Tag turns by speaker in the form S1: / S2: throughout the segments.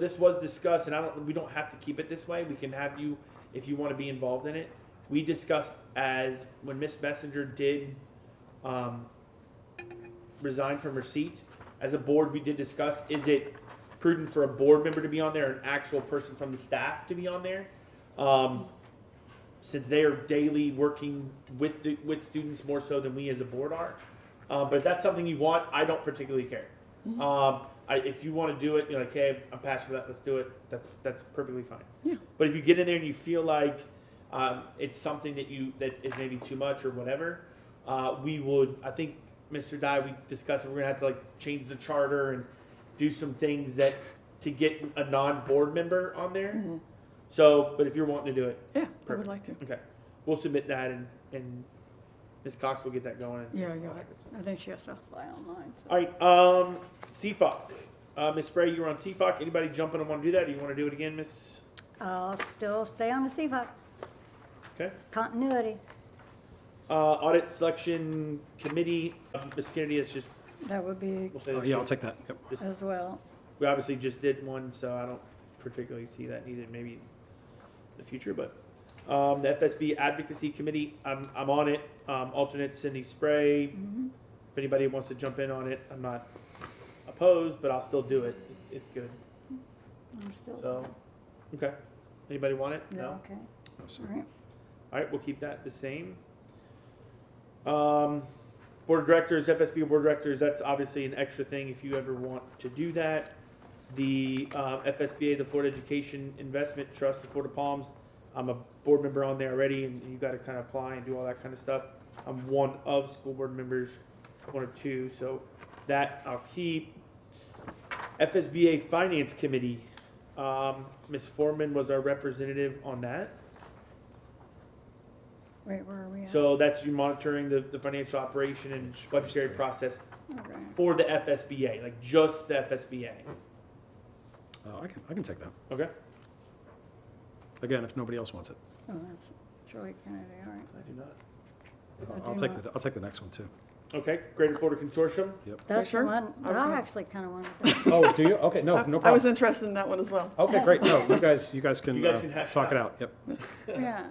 S1: This was discussed, and I don't, we don't have to keep it this way, we can have you, if you wanna be involved in it. We discussed as, when Miss Messenger did, um, resign from her seat, as a board, we did discuss, is it prudent for a board member to be on there, an actual person from the staff to be on there? Um, since they are daily working with the, with students more so than we as a board are. Uh, but if that's something you want, I don't particularly care. Um, I, if you want to do it, you're like, hey, I'm passionate about that. Let's do it. That's that's perfectly fine.
S2: Yeah.
S1: But if you get in there and you feel like um, it's something that you that is maybe too much or whatever, uh, we would. I think Mr. Dye, we discussed. We're gonna have to like change the charter and do some things that to get a non-board member on there. So, but if you're wanting to do it,
S2: Yeah, I
S1: Perfect.
S2: would like to.
S1: Okay, we'll submit that and, and Ms. Cox will get that going. and-
S2: Yeah, yeah. I think she has to apply online. so-
S1: All right, um, CFOC, uh, Ms. Spray, you were on CFOC, anybody jumping and wanna do that, or you wanna do it again, Ms.?
S3: I'll still stay on the CFOC,
S1: Okay,
S3: continuity.
S1: uh, Audit Selection Committee, um, Ms. Kennedy, that's just,
S3: That would be
S1: we'll say
S4: Oh,
S1: that's
S4: Yeah, I'll
S1: you.
S4: take that. Yep.
S1: Just-
S3: as well.
S1: We obviously just did one, so I don't particularly see that needed maybe in the future, but, um, the FSB Advocacy Committee, I'm, I'm on it, um, alternate Cindy Spray. If anybody wants to jump in on it, I'm not opposed, but I'll still do it, it's, it's good,
S3: I'm still,
S1: so, okay. Anybody want it?
S3: yeah, okay,
S4: Oh, sorry.
S3: all right.
S1: All right, we'll keep that the same. Um, board of directors, FSB board of directors, that's obviously an extra thing if you ever want to do that. The, uh, FSBA, the Florida Education Investment Trust, the Florida Palms, I'm a board member on there already and you gotta kind of apply and do all that kind of stuff. I'm one of school board members, one or two, so that I'll keep. FSBA Finance Committee, um, Ms. Foreman was our representative on that.
S3: Wait, where are we at?
S1: So that's you monitoring the, the financial operation and budgetary process
S3: All right.
S1: for the FSBA, like just the FSBA.
S4: Uh, I can, I can take that.
S1: Okay?
S4: Again, if nobody else wants it.
S3: Oh, that's Shirley Kennedy, all right.
S1: I do not.
S4: I'll-
S3: I
S4: I'll
S3: do
S4: take,
S3: not.
S4: the- I'll take the next one too.
S1: Okay, Greater Florida Consortium.
S4: Yep.
S3: That's the
S2: sure.
S3: one,
S2: I
S3: that
S2: was
S3: I
S2: gonna-
S3: actually kind of wanted to,
S4: Oh, do you? Okay, no, no
S2: I- I was
S4: problem.
S2: interested in that one as well.
S4: Okay, great. No, you guys, you guys
S1: You
S4: can
S1: guys
S4: uh,
S1: can hash it
S4: talk it out. Yep.
S3: yeah,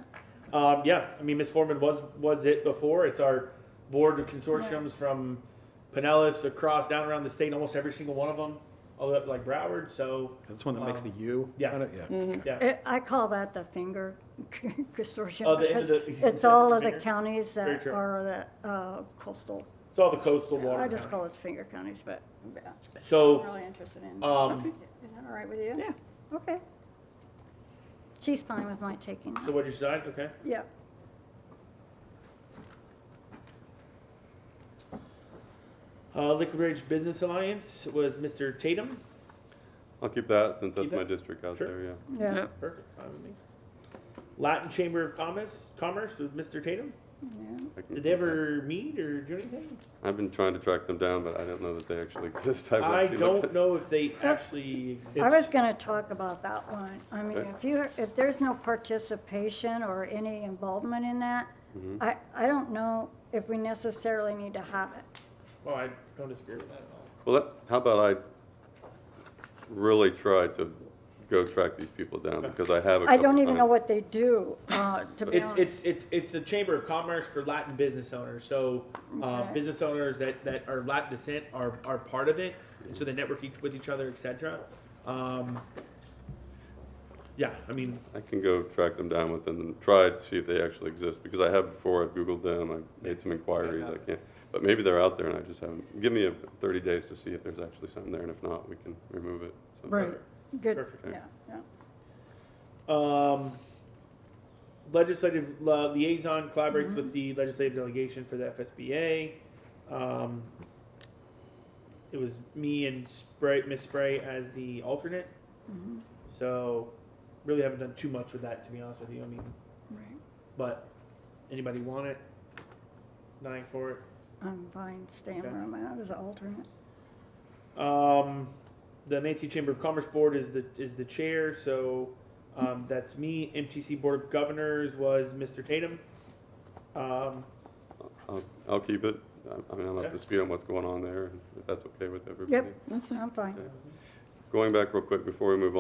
S1: Um, yeah, I mean, Ms. Foreman was, was it before. It's our board of consortiums from Pinellas across, down around the state, almost every single one of them, all the way up to like Broward, so,
S4: That's one that makes the U.
S1: Um, Yeah.
S4: on it? Yeah. okay.
S1: yeah.
S3: It- I call that the finger consortium.
S1: Oh, the end of
S3: because
S1: the-
S3: It's all of the
S1: finger.
S3: counties
S1: Very
S3: that
S1: true.
S3: are the uh, coastal,
S1: It's all the coastal water.
S3: I just
S1: counties.
S3: call it finger counties, but yeah, I'm
S1: So,
S3: really interested in.
S1: um,
S3: Is that all right with you?
S2: Yeah.
S3: Okay. She's fine with my taking
S1: so
S3: that.
S1: what you decide, okay?
S3: Yep.
S1: Uh, Liquid Ridge Business Alliance was Mr. Tatum.
S5: I'll keep that since that's
S1: Keep it?
S5: my district out
S1: Sure.
S5: there, yeah.
S3: Yeah.
S2: Yep.
S1: Perfect, fine with me. Latin Chamber of Commerce, Commerce with Mr. Tatum.
S3: Yeah.
S5: I can
S1: Did
S5: keep
S1: they
S5: that.
S1: ever meet or do anything?
S5: I've been trying to track them down, but I don't know that they actually exist. I've
S1: I
S5: actually looked
S1: don't know if they actually.
S3: I was gonna talk about that one. I mean,
S5: Okay.
S3: if you, if there's no participation or any involvement in that, I, I don't know if we necessarily need to have it.
S1: Well, I don't disagree with that at all.
S5: at- Well, that- how about I really try to go track these people down because I have a
S3: I
S5: couple-
S3: don't even know
S5: mean,
S3: what they do, uh, to be
S1: It's,
S3: honest.
S1: it's, it's, it's a chamber of commerce for Latin business owners. So, uh,
S3: Okay.
S1: business owners that, that are Latin descent are, are part of it. And so they network each, with each other, et cetera. Um, yeah, I mean,
S5: I can go track them down with them and try to see if they actually exist because I have before. I've Googled them. I've made some inquiries. I can't. But maybe they're out there and I just haven't. Give me a 30 days to see if there's actually something there, and if not, we can remove it. So-
S3: Right, good,
S1: perfect.
S3: yeah, yeah.
S1: Um, legislative uh, liaison collaborates with the legislative delegation for the FSBA. Um, it was me and Spray, Miss Spray as the alternate. So, really haven't done too much with that, to be honest with you. I mean,
S3: Right.
S1: but anybody want it? Dying for it.
S3: I'm fine staying
S1: Okay.
S3: where I'm at as an alternate.
S1: Um, the Manatee Chamber of Commerce Board is the is the chair, so um, that's me. MTC Board of Governors was Mr. Tatum. Um,
S5: I'll, I'll keep it. I- I mean, I'm up
S1: Okay.
S5: to speed on what's going on there, if that's okay with everybody.
S3: Yep,
S2: That's fine.
S3: I'm fine.
S5: Going back real quick before we move on.